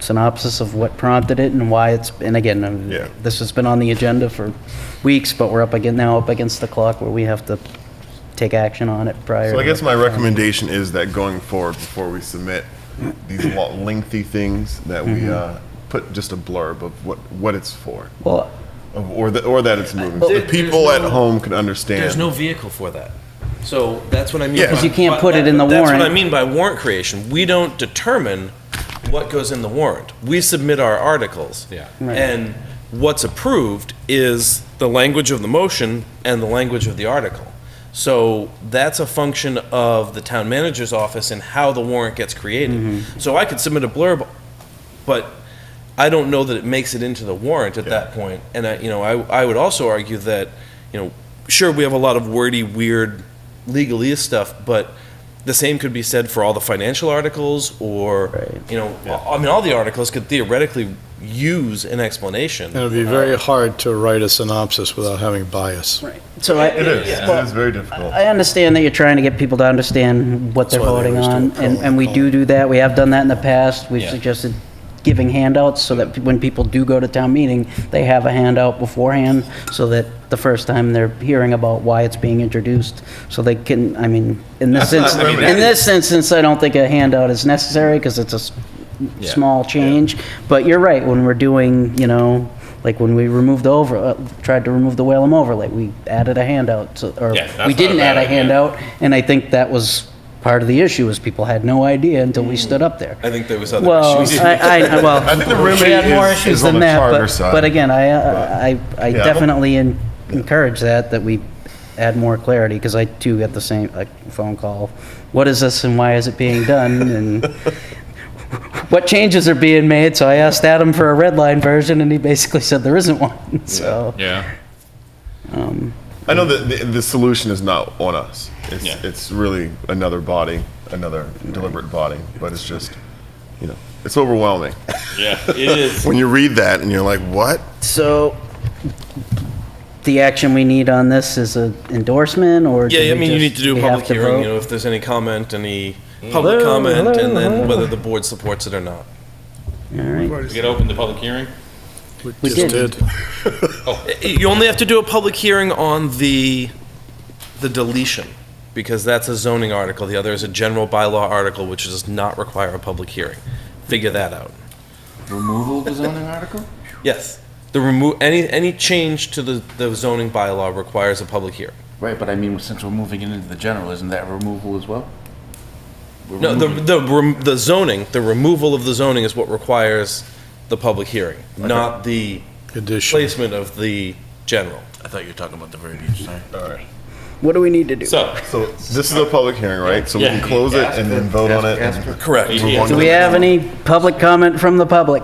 synopsis of what prompted it and why it's, and again, um, Yeah. this has been on the agenda for weeks, but we're up again, now up against the clock where we have to take action on it prior. So I to- guess my recommendation is that going forward, before we submit these lo- lengthy things, that we uh, put just a blurb of what, what it's for, Well, of- or that, or that it's moving. So There- the people there's at no- home can understand. There's no vehicle for that. So that's what I mean. Yeah. 'Cause you can't by- put it in the That's what warrant. I mean by warrant creation. We don't determine what goes in the warrant. We submit our articles. Yeah. Right. And what's approved is the language of the motion and the language of the article. So that's a function of the town manager's office and how the warrant gets created. Mm-hmm. So I could submit a blurb, but I don't know that it makes it into the warrant at that point. And I, you know, I, I would also argue that, you know, sure, we have a lot of wordy, weird legalese stuff, but the same could be said for all the financial articles or, Right. you know, I I mean, all the articles could theoretically use an explanation. And it'd be very hard to write a synopsis without having bias. so I. It is, Yeah. it is very difficult. I understand that you're trying to get people to understand what they're That's why they voting always do on, a and, poll. and we do do that. We have done that in the past. We've Yeah. suggested giving handouts so that when people do go to town meeting, they have a handout beforehand, so that the first time they're hearing about why it's being introduced, so they can, I mean, in this instance, mean, in this instance, I don't think a handout is necessary, because it's a s- Yeah. small change, but you're right, when we're doing, you know, like when we removed the over, uh, tried to remove the Whalen overlay, we added a handout, so- or Yeah, we that's not a didn't add bad a idea. handout, and I think that was part of the issue, is people had no idea until we stood up there. I think there was other Well, issues. I, I, well. I think the remedy she had more is- issues is on than the that, charter but- side. But again, I, I, I Yeah. definitely en- encourage that, that we add more clarity, because I too get the same, like, phone call. What is this and why is it being done? And what changes are being made? So I asked Adam for a red line version, and he basically said there isn't one, so. Yeah. I know that the, the solution is not on us. It's, Yeah. it's really another body, another deliberate body, but it's just, you know, it's overwhelming. Yeah, it is. When you read that and you're like, what? So the action we need on this is an endorsement, or? do Yeah, I we mean, you just- need to do a we have public to hearing, you vote? know, if there's any comment, any public Hello, comment, and hello. then whether the board supports it or not. All right, We could open the public hearing? We Just did. You only have to do a public hearing on the, the deletion, because that's a zoning article. The other is a general bylaw article, which does not require a public hearing. Figure that out. Removal of the zoning article? Yes. The remo, any, any change to the, the zoning bylaw requires a public hearing. Right, but I mean, since we're moving it into the general, isn't that removal as well? We're No, the, removing- the, rem- the zoning, the removal of the zoning is what requires the public hearing, not the Addition. placement of the general. I thought you were talking about the verbiage, sorry. All right. What do we need to do? So, So this is a public hearing, right? So we can Yeah. close it and then vote on it. Ask- and ask- Correct. move on Yeah. to Do we the- have any public comment from the public?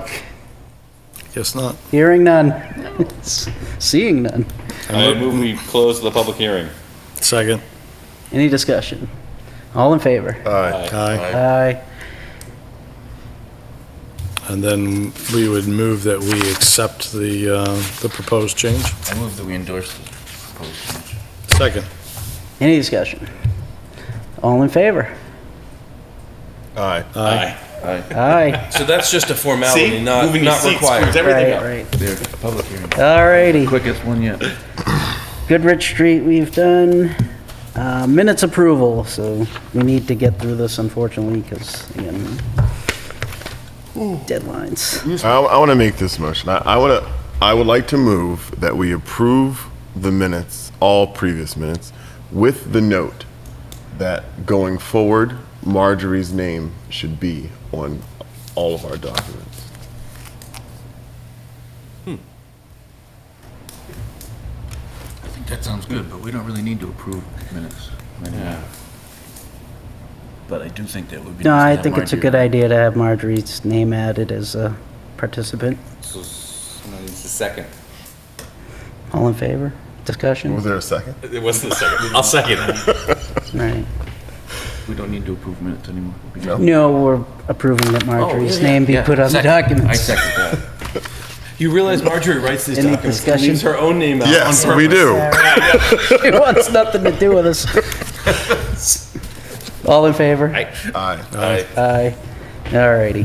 Guess not. Hearing none. Seeing none. I move we close the public hearing. Second. Any discussion? All in favor? Aye. Aye. Aye. And then we would move that we accept the, uh, the proposed change. I move that we endorse the proposed change. Second. Any discussion? All in favor? Aye. Aye. Aye. Aye. So that's just a formality, not, Moving to not C required. screws everything up. Right, right. There, a public hearing. All righty. Quickest one yet. Goodrich Street, we've done. Uh, Minutes approval, so we need to get through this unfortunately, because, again, deadlines. I, want to make this motion. I, I want to. I would like to move that we approve the minutes, all previous minutes, with the note that going forward, Marjorie's name should be on all of our documents. I think that sounds good, but we don't really need to approve minutes. Yeah. But I do think that would be. No, nice to I have think it's a Marjorie good on. idea to have Marjorie's name added as a participant. So somebody needs a second. All in favor? Discussion? Was there a second? It wasn't a second. I'll second it. Right. We don't need to approve minutes anymore. We can- No, we're approving that Marjorie's name be Oh, Yeah, put on the second. I documents. second that. You realize Marjorie writes these Any documents and discussion? leaves her own name out on Yes, purpose. we do. She wants nothing to do with us. All in favor? Aye. Aye. All righty.